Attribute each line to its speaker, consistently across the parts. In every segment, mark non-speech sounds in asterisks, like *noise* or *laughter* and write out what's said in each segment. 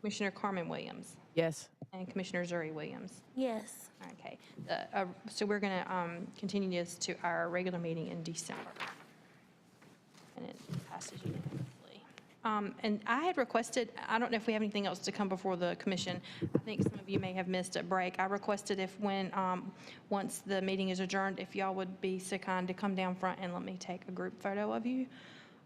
Speaker 1: Commissioner Carmen Williams,
Speaker 2: Yes.
Speaker 1: and Commissioner Zuri Williams.
Speaker 3: Yes.
Speaker 1: Okay, the, uh, so we're going to continue this to our regular meeting in December. And it passes unanimously. Um, And I had requested, I don't know if we have anything else to come before the commission. I think some of you may have missed a break. I requested if when, um, once the meeting is adjourned, if y'all would be so kind to come down front and let me take a group photo of you.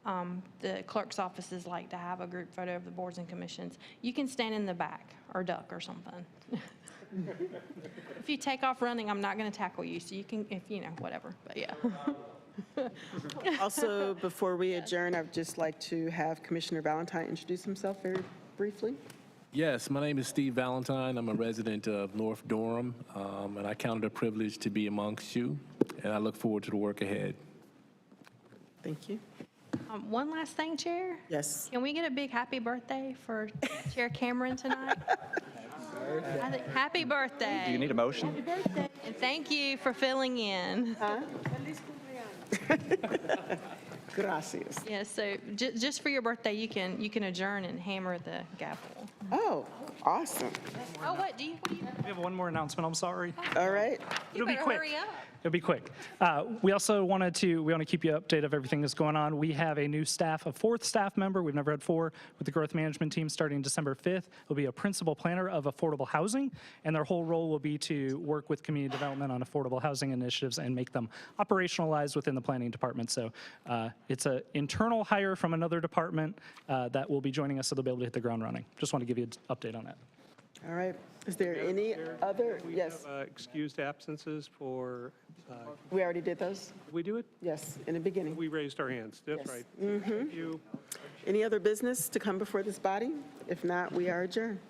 Speaker 1: Um, The clerk's offices like to have a group photo of the boards and commissions. You can stand in the back or duck or something. *laughs* If you take off running, I'm not going to tackle you, so you can, if, you know, whatever, but yeah.
Speaker 4: Also, before we adjourn, I'd just like to have Commissioner Valentine introduce himself very briefly.
Speaker 5: Yes, my name is Steve Valentine. I'm a resident of North Durham, um, and I count it a privilege to be amongst you, and I look forward to the work ahead.
Speaker 4: Thank you.
Speaker 1: *laughs* Um, One last thing, Chair.
Speaker 4: Yes.
Speaker 1: Can we get a big happy birthday for Chair Cameron tonight? I think- Happy birthday.
Speaker 6: Do you need a motion?
Speaker 1: And thank you for filling in.
Speaker 4: Gracias.
Speaker 1: Yeah, so ju- just for your birthday, you can, you can adjourn and hammer the gavel.
Speaker 4: Oh, awesome.
Speaker 1: Oh, what, do you, what do you,
Speaker 7: We have one more announcement, I'm sorry.
Speaker 4: All right.
Speaker 1: you
Speaker 7: It'll be
Speaker 1: better
Speaker 7: quick.
Speaker 1: hurry up.
Speaker 7: It'll be quick. Uh, We also wanted to, we want to keep you updated of everything that's going on. We have a new staff, a fourth staff member, we've never had four, with the growth management team starting December 5th. Will be a principal planner of affordable housing, and their whole role will be to work with community development on affordable housing initiatives and make them operationalized within the planning department. So uh, it's an internal hire from another department uh, that will be joining us, so they'll be able to hit the ground running. Just want to give you an update on that.
Speaker 4: All right. Is there any other?
Speaker 8: We
Speaker 4: Yes,
Speaker 8: have uh, excused absences for, uh,
Speaker 4: we already did those.
Speaker 8: did we do it?
Speaker 4: Yes, in the beginning.
Speaker 8: We raised our hands, that's
Speaker 4: Yes. Mm-hmm.
Speaker 8: right. Thank you.
Speaker 4: Any other business to come before this body? If not, we are adjourned.